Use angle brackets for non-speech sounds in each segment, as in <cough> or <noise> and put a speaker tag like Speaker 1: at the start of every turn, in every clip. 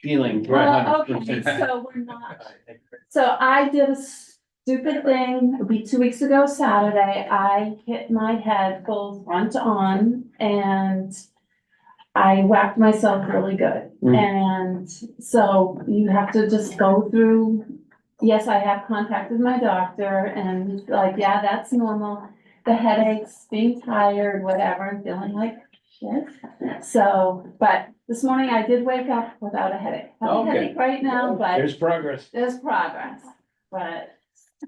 Speaker 1: feeling.
Speaker 2: Well,
Speaker 1: 100%.
Speaker 2: okay, so we're not,
Speaker 3: <laughs>
Speaker 2: so I did a stupid thing, it'd be two weeks ago Saturday, I hit my head full front on and I whacked myself really good,
Speaker 1: Mm.
Speaker 2: and so you have to just go through, yes, I have contacted my doctor and he's like, yeah, that's normal. The headaches, being tired, whatever, and feeling like shit, so, but this morning I did wake up without a headache. I have a
Speaker 1: Okay.
Speaker 2: headache right now, but
Speaker 1: There's progress.
Speaker 2: there's progress, but,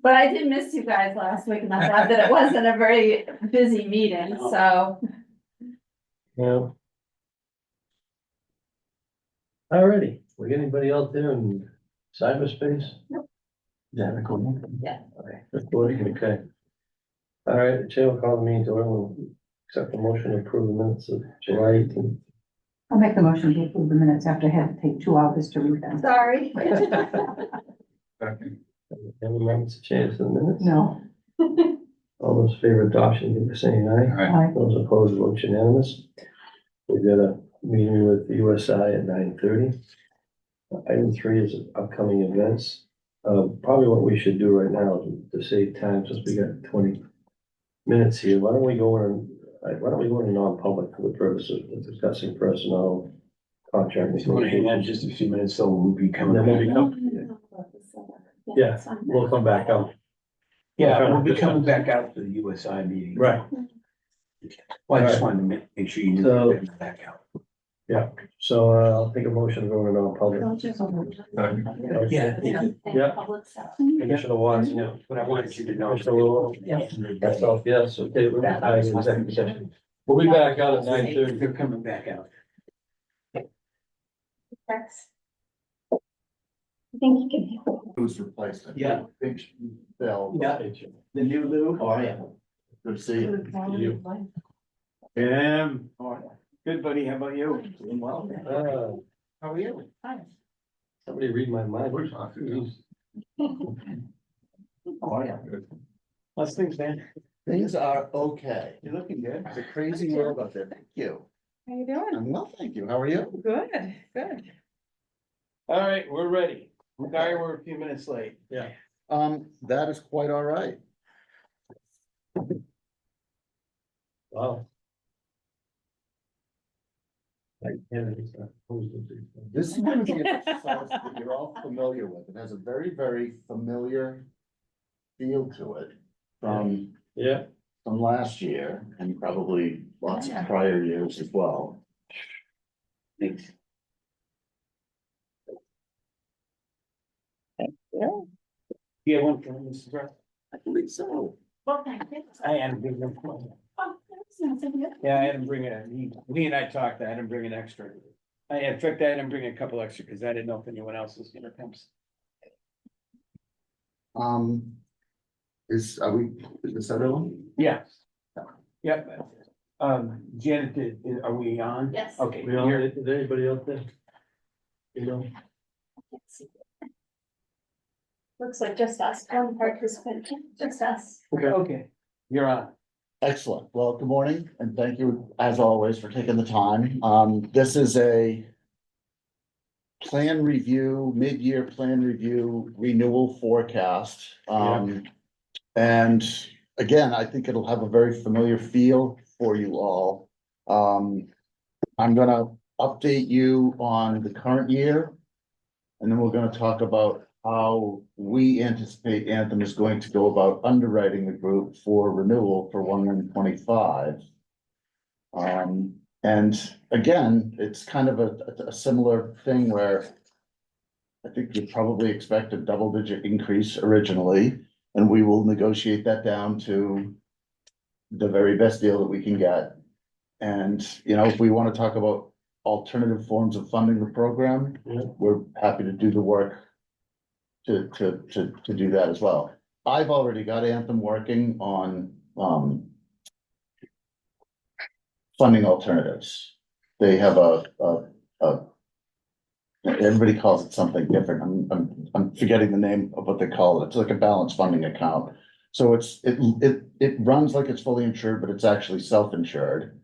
Speaker 2: but I did miss you guys last week and I thought that it wasn't a very busy meeting, so.
Speaker 3: Yeah. Alrighty, we got anybody out there in cyberspace?
Speaker 2: Nope.
Speaker 3: Yeah, recording.
Speaker 2: Yeah.
Speaker 3: Okay, Recording, okay. Alright, the chair will call the meeting to order, We'll accept the motion to approve the minutes of July eighteenth.
Speaker 4: I'll make the motion to approve the minutes after I had to take two hours to read
Speaker 2: <laughs>
Speaker 4: them.
Speaker 2: Sorry.
Speaker 3: Any members of chairs for the minutes?
Speaker 4: No,
Speaker 3: All those favor adoption, give us saying aye.
Speaker 4: I,
Speaker 3: Those opposed, vote unanimous. We've got a meeting with USI at nine thirty. Item three is upcoming events. Uh, probably what we should do right now to save time, since we got twenty minutes here, why don't we go in, uh, why don't we go into non-public for the purpose of discussing personnel contract.
Speaker 1: If you wanna hang on just a few minutes, so we'll be coming
Speaker 3: Then we'll
Speaker 1: back.
Speaker 3: be- Yeah, We'll come back out.
Speaker 1: Yeah, we'll be coming back out to the USI meeting. Well, I just wanted to make, make sure you knew
Speaker 3: So-
Speaker 1: that we're back out.
Speaker 3: So uh, I'll take a motion to go into non-public.
Speaker 1: Yeah.
Speaker 3: Yeah. Commissioner Watts,
Speaker 1: You know, But I wanted you to know.
Speaker 3: Mr. Lowell?
Speaker 4: Yes.
Speaker 3: That's all, yes, okay, we're
Speaker 1: That-
Speaker 3: in executive session. We'll be back out at nine thirty.
Speaker 1: They're coming back out.
Speaker 5: Who's replaced it?
Speaker 1: Yeah.
Speaker 5: Big Bell.
Speaker 1: Yeah. The new Lou, how are you?
Speaker 5: Oh, Good to see you.
Speaker 1: Jim. How are you? Oh, Good buddy, how about you? Doing well.
Speaker 3: Uh,
Speaker 1: How are you?
Speaker 3: Somebody read my mind.
Speaker 5: We're talking. Oh,
Speaker 1: How are you? How's things, man?
Speaker 5: Things are okay.
Speaker 1: You're looking good.
Speaker 5: It's a crazy world out there. Thank you. How you doing? Well, thank you. How are you?
Speaker 1: All right, we're ready. Sorry, we're a few minutes late.
Speaker 5: Um, that is quite all right.
Speaker 3: Wow. I can't even start posting things.
Speaker 5: This is going to be an exercise that you're all familiar with. It has a very, very familiar feel to it from
Speaker 3: Yeah,
Speaker 5: from last year and probably lots of prior years as well.
Speaker 1: Thanks. You have one for Mrs. Russ?
Speaker 5: I believe so.
Speaker 1: I had to bring them.
Speaker 2: Oh,
Speaker 1: Yeah, I had to bring it. He, Lee and I talked, I had him bring an extra. I, in fact, I had him bring a couple extra because I didn't know if anyone else was gonna come.
Speaker 5: Um, is, are we, is this everyone?
Speaker 1: Yeah. Yep. Um, Janet, did- are we on?
Speaker 2: Yes.
Speaker 1: Okay.
Speaker 3: we all,
Speaker 1: you're-
Speaker 3: is there anybody out there? You know,
Speaker 2: Looks like just us, one participant, just us.
Speaker 1: Okay, you're on.
Speaker 5: Excellent. Well, good morning and thank you as always for taking the time. Um, this is a plan review, mid-year plan review renewal forecast. Um, and again, I think it'll have a very familiar feel for you all. Um, I'm gonna update you on the current year. And then we're gonna talk about how we anticipate Anthem is going to go about underwriting the group for renewal for one one twenty-five. Um, and again, it's kind of a, a- a similar thing where I think you probably expect a double-digit increase originally, and we will negotiate that down to the very best deal that we can get. And, you know, if we want to talk about alternative forms of funding the program,
Speaker 3: Yeah.
Speaker 5: we're happy to do the work to, to, to, to do that as well. I've already got Anthem working on, um, funding alternatives. They have a, a, a, everybody calls it something different. I'm, I'm, I'm forgetting the name of what they call it. It's like a balanced funding account. So it's, it, it, it runs like it's fully insured, but it's actually self-insured.